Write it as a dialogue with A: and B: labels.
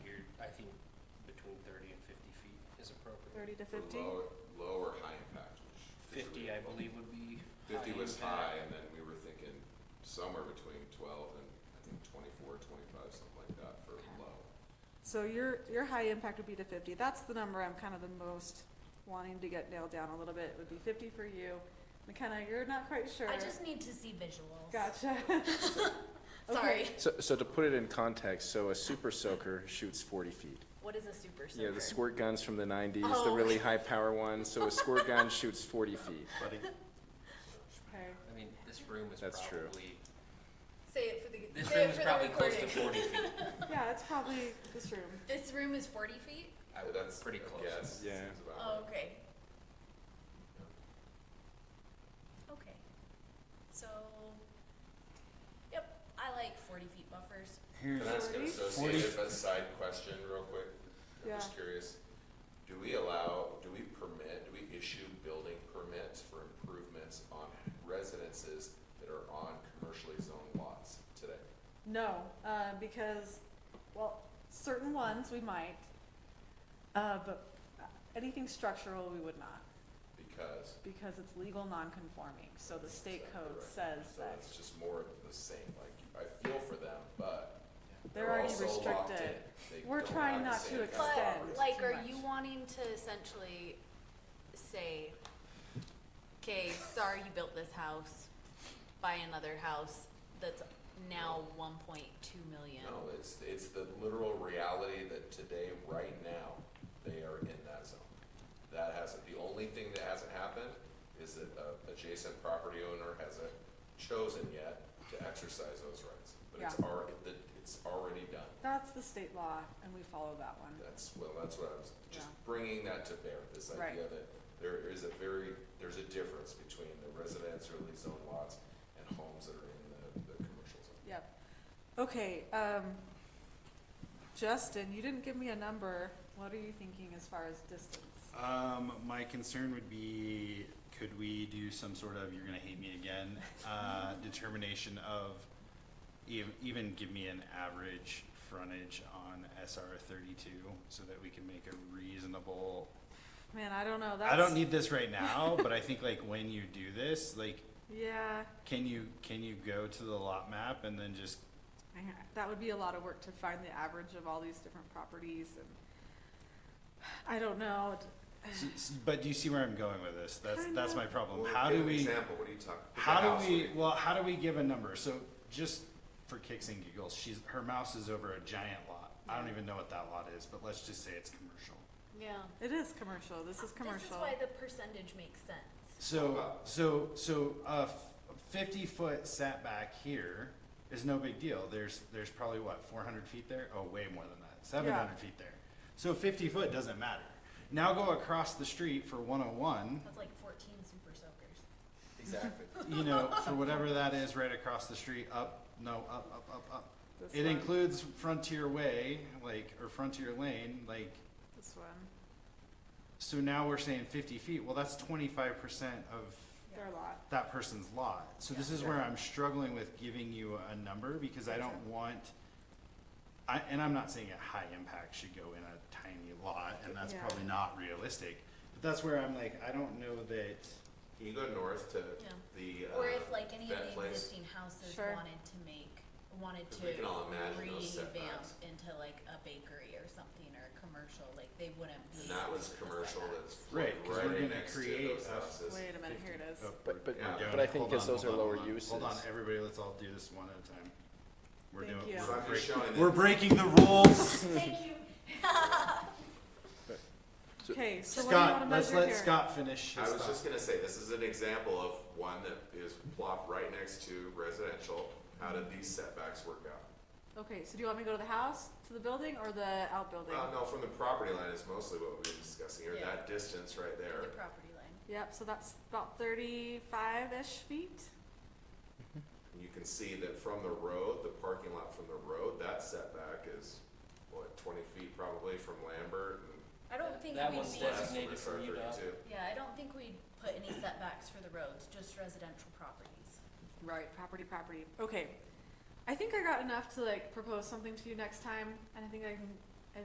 A: is appropriate.
B: thirty to
C: for
B: fifty?
C: low- Low or high impact, which. is
A: Fifty,
C: really-
A: I believe, would be.
C: Fifty was
A: impact.
C: high, and then we were thinking somewhere between twelve and I think twenty-four, twenty-five, something like that for
B: Okay.
C: low.
B: So your, your high impact would be to fifty, that's the number I'm kind of the most wanting to get nailed down a little bit, would be fifty for you. McKenna, you're not quite sure.
D: I just need to see visuals.
B: Gotcha.
D: Sorry.
B: Okay.
E: So, so to put it in context, so a super soaker shoots forty feet.
D: What is a super soaker?
E: Yeah, the squirt guns from the nineties, the
D: Oh.
E: really high power ones. So a squirt gun shoots forty feet.
B: Okay.
A: I mean, this room is
E: That's true.
A: probably,
D: Say it for the
A: this
D: say
A: room
D: it
A: is
D: for
A: probably
D: the
A: close
D: recording.
A: to forty feet.
B: Yeah, it's probably this room.
D: This room is 40 feet.
A: I would,
C: That's
A: pretty
C: a
A: close.
C: guess.
E: Yeah.
C: Seems about
D: Oh,
C: right.
D: okay. Okay. So, yep, I like 40 feet buffers.
C: Can I ask an
B: Forty?
C: associated but side question real quick? I'm
B: Yeah.
C: just curious. Do we allow, do we permit, do we issue building permits for improvements on residences that are on commercially zoned lots today?
B: No, uh, because, well, certain ones we might, uh, but anything structural we would not,
C: Because.
B: because it's legal non-conforming, so the state
C: Exactly
B: code
C: right.
B: says
C: So
B: that
C: it's just more of the same, like, I feel for them, but
B: they're
C: they're
B: already
C: also locked in.
B: restricted.
C: They
B: We're
C: don't
B: trying
C: have the
B: not
C: same
B: to
C: kind of
B: extend.
C: properties.
D: But like,
B: too
D: are
B: much.
D: you wanting to essentially say, okay, sorry you built this house, buy another house that's now 1.2 million?
C: No, it's, it's the literal reality that today, right now, they are in that zone. That hasn't, the only thing that hasn't happened is that a adjacent property owner hasn't chosen yet to exercise those rights. But it's
B: Yeah.
C: already, it's already done.
B: That's the state law, and we follow that one.
C: That's, well, that's what I was, just
B: Yeah.
C: bringing that to bear, this
B: Right.
C: idea that there is a very, there's a difference between the residentially zoned lots and homes that are in the, the commercial zone.
B: Yep. Okay, um, Justin, you didn't give me a number. What are you thinking as far as distance?
F: Um, my concern would be, could we do some sort of, you're gonna hate me again, uh, determination of ev- even give me an average frontage on SR thirty-two so that we can make a reasonable,
B: Man, I don't know, that's.
F: I don't need this right now, but I think like when you do this, like,
B: Yeah,
F: can you, can you go to the lot map and then just,
B: I- that would be a lot of work to find the average of all these different properties and, I don't know.
F: s- s- but do you see where I'm going with this? That's, that's my problem.
C: Well,
F: Um, How
C: give
F: do
C: an
F: we?
C: Example, what are you talking? pick a
F: How
C: house,
F: do we,
C: what
F: well, how do we give a number? So just for kicks and giggles, she's, her mouse is over a giant lot. I don't even know what that lot is, but let's just say it's commercial.
D: Yeah.
B: It is commercial, this is
D: This is
B: commercial.
D: why the percentage makes sense.
F: So, so, so a fifty foot setback here is no big deal. There's, there's probably what, four hundred feet there? Oh, way more than that, seven hundred feet there. So fifty foot doesn't matter. Now go across the street for one oh one.
D: That's like 14 super soakers.
A: Exactly.
F: you know, for whatever that is right across the street, up, no, up, up, up, up.
B: This
F: It
B: one.
F: includes Frontier Way, like, or Frontier Lane, like,
B: This one,
F: so now we're saying fifty feet, well, that's twenty-five percent of
B: their lot.
F: that person's lot. So this is where I'm struggling with giving you a number, because I don't want, I, and I'm not saying a high impact should go in a tiny lot, and that's
B: Yeah.
F: probably not realistic. But that's where I'm like, I don't know that,
C: Can you go north to
D: Yeah.
C: the, uh,
D: Or if like any of
C: that
D: the
C: place?
D: existing houses
B: Sure.
D: wanted to make, wanted
C: Because
D: to
C: we can all imagine those
D: revamp
C: setbacks.
D: into like a bakery or something or a commercial, like they wouldn't be.
C: And that
D: able
C: was
D: to do the
C: commercial,
D: setbacks.
C: that's
F: Right, 'cause we're
C: right
F: gonna
C: next to
F: create
C: those
F: a-
C: houses.
B: Wait a minute, here it is.
F: oh,
E: But, but,
C: Yeah.
E: but I think
F: Hold
E: because
F: on,
E: those are
F: hold on,
E: lower
F: hold on.
E: uses.
F: Hold on, everybody, let's all do this one at a time. We're
B: Thank
F: doing,
B: you.
C: So
F: we're
C: I'm just
F: breaking,
C: showing
F: we're
C: that,
F: breaking the rules.
D: Thank you.
E: So-
B: Okay, so what do you wanna
F: Scott, let's
B: measure here?
F: let Scott finish
C: I
F: his
C: was just
F: thought.
C: gonna say, this is an example of one that is plopped right next to residential. How did these setbacks work out?
B: Okay, so do you want me to go to the house, to the building, or the outbuilding?
C: Well, no, from the property line is mostly what we were discussing here,
D: Yeah.
C: that distance right there.
D: The property line.
B: Yep, so that's about thirty-five-ish feet.
C: And you can see that from the road, the parking lot from the road, that setback is, what, twenty feet probably from Lambert and
D: I don't think
A: That
D: we'd
A: one's
D: be,
A: dead.
C: last one
A: Designated
C: is
A: for
C: R
A: you, Doc.
C: thirty-two.
D: yeah, I don't think we'd put any setbacks for the roads, just residential properties.
B: Right, property, property. Okay. I think I got enough to like propose something to you next time, and I think I can